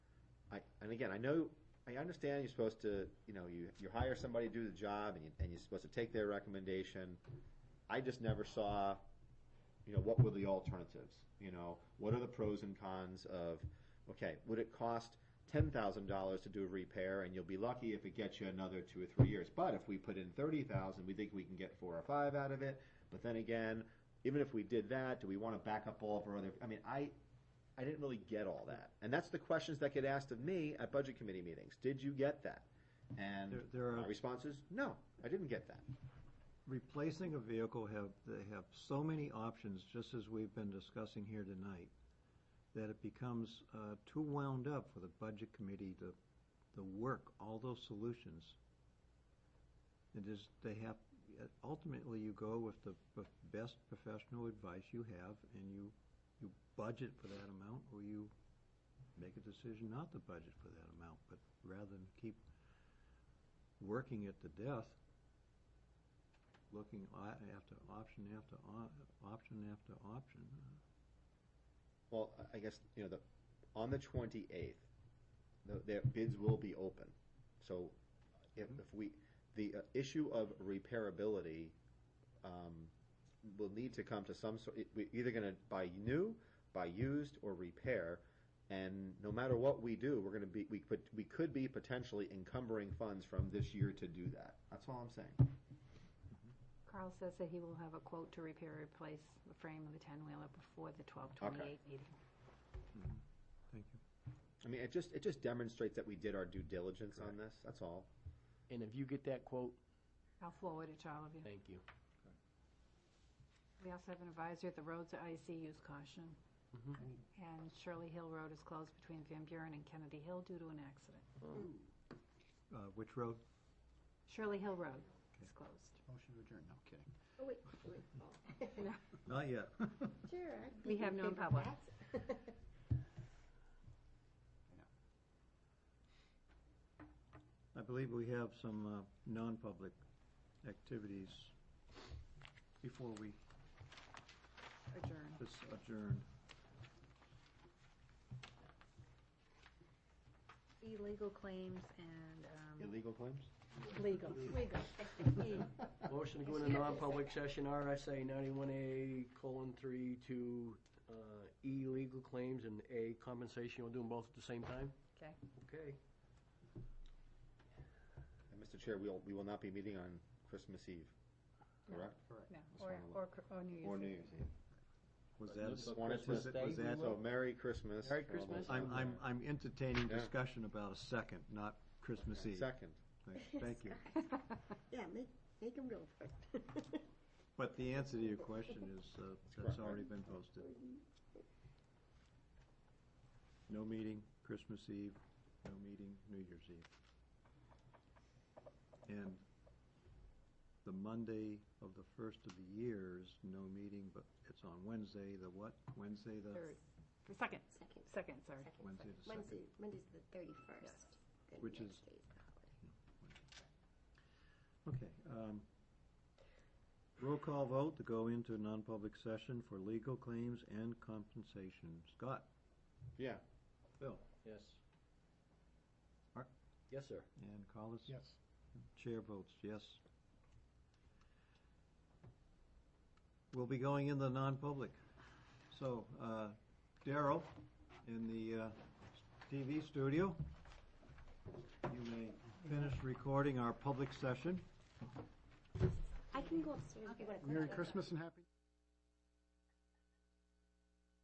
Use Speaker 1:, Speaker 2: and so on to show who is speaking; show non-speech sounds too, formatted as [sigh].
Speaker 1: and again, I know, I understand you're supposed to, you know, you, you hire somebody to do the job and you, and you're supposed to take their recommendation. I just never saw, you know, what were the alternatives? You know, what are the pros and cons of, okay, would it cost ten thousand dollars to do a repair and you'll be lucky if it gets you another two or three years. But if we put in thirty thousand, we think we can get four or five out of it. But then again, even if we did that, do we want to back up all of our other? I mean, I, I didn't really get all that, and that's the questions that get asked of me at budget committee meetings. Did you get that? And
Speaker 2: There- there are-
Speaker 1: my response is no, I didn't get that.
Speaker 2: replacing a vehicle have, they have so many options, just as we've been discussing here tonight, that it becomes uh, too wound up for the budget committee to, to work all those solutions. It is, they have, ultimately, you go with the b- best professional advice you have, and you, you budget for that amount, or you make a decision not to budget for that amount, but rather than keep working it to death, looking o- after option after o- option after option.
Speaker 1: Well, I- I guess, you know, the, on the twenty-eighth, the, their bids will be open. So if, if we, the uh, issue of repairability, um, will need to come to some sort, it- we're either gonna buy new, buy used, or repair. And no matter what we do, we're gonna be, we could, we could be potentially encumbering funds from this year to do that. That's all I'm saying.
Speaker 3: Carl says that he will have a quote to repair or replace the frame of the ten-wheeler before the twelve twenty-eight meeting.
Speaker 2: Thank you.
Speaker 1: I mean, it just, it just demonstrates that we did our due diligence on this, that's all.
Speaker 4: And if you get that quote,
Speaker 3: I'll forward it to all of you.
Speaker 4: thank you.
Speaker 3: We also have an advisory that the roads are icy, use caution.
Speaker 1: Mm-hmm.
Speaker 3: And Shirley Hill Road is closed between Van Buren and Kennedy Hill due to an accident.
Speaker 2: Uh, Which road?
Speaker 3: Shirley Hill Road is closed.
Speaker 5: Motion to adjourn, no kidding.
Speaker 6: Oh, wait, wait, oh.
Speaker 2: [laughs] Not yet.
Speaker 6: [laughs] Sure. I
Speaker 3: We have no
Speaker 6: can figure
Speaker 3: public.
Speaker 6: [laughs] that.
Speaker 2: I believe we have some uh, non-public activities before we
Speaker 3: Adjourn.
Speaker 2: dis- adjourn.
Speaker 3: Illegal claims and, um,
Speaker 1: Illegal claims?
Speaker 3: legal.
Speaker 6: Legal.
Speaker 4: Motion to go into non-public session, RSA ninety-one A colon three to, uh, E legal claims and A compensation. We'll do them both at the same time?
Speaker 3: Okay.
Speaker 4: Okay.
Speaker 1: And Mr. Chair, we'll, we will not be meeting on Christmas Eve, correct?
Speaker 3: No,
Speaker 1: That's
Speaker 3: or,
Speaker 1: one of
Speaker 3: or, or New Year's.
Speaker 1: Or New Year's Eve.
Speaker 2: Was that,
Speaker 1: Just
Speaker 2: a-
Speaker 1: wanted to-
Speaker 2: was it- was
Speaker 4: Day,
Speaker 2: that,
Speaker 4: we
Speaker 1: So Merry Christmas.
Speaker 4: Merry
Speaker 1: for all those
Speaker 4: Christmas.
Speaker 1: out
Speaker 2: I'm, I'm,
Speaker 1: there.
Speaker 2: I'm entertaining
Speaker 1: Yeah.
Speaker 2: discussion about a second, not Christmas Eve.
Speaker 1: Second.
Speaker 2: Thank- Thank you.
Speaker 3: [laughs]
Speaker 6: Yeah, make, make them go for it.
Speaker 2: But the answer to your question is, uh, that's already been posted. No meeting Christmas Eve, no meeting New Year's Eve. And the Monday of the first of the year is no meeting, but it's on Wednesday, the what? Wednesday, the?
Speaker 3: Third, second,
Speaker 6: [laughs] Second.
Speaker 3: second, sorry.
Speaker 6: Second,
Speaker 2: Wednesday
Speaker 6: second.
Speaker 2: the second.
Speaker 6: Wednesday, Monday's the thirty-first.
Speaker 2: Which is- Okay. um, Roll call vote to go into non-public session for legal claims and compensation. Scott?
Speaker 1: Yeah.
Speaker 2: Bill?
Speaker 4: Yes.
Speaker 2: Mark?
Speaker 4: Yes, sir.
Speaker 2: And Collis?
Speaker 5: Yes.
Speaker 2: Chair votes yes. We'll be going in the non-public. So, uh, Daryl, in the uh, TV studio, you may finish recording our public session.
Speaker 6: I can go upstairs if you want to.
Speaker 5: Merry Christmas and happy.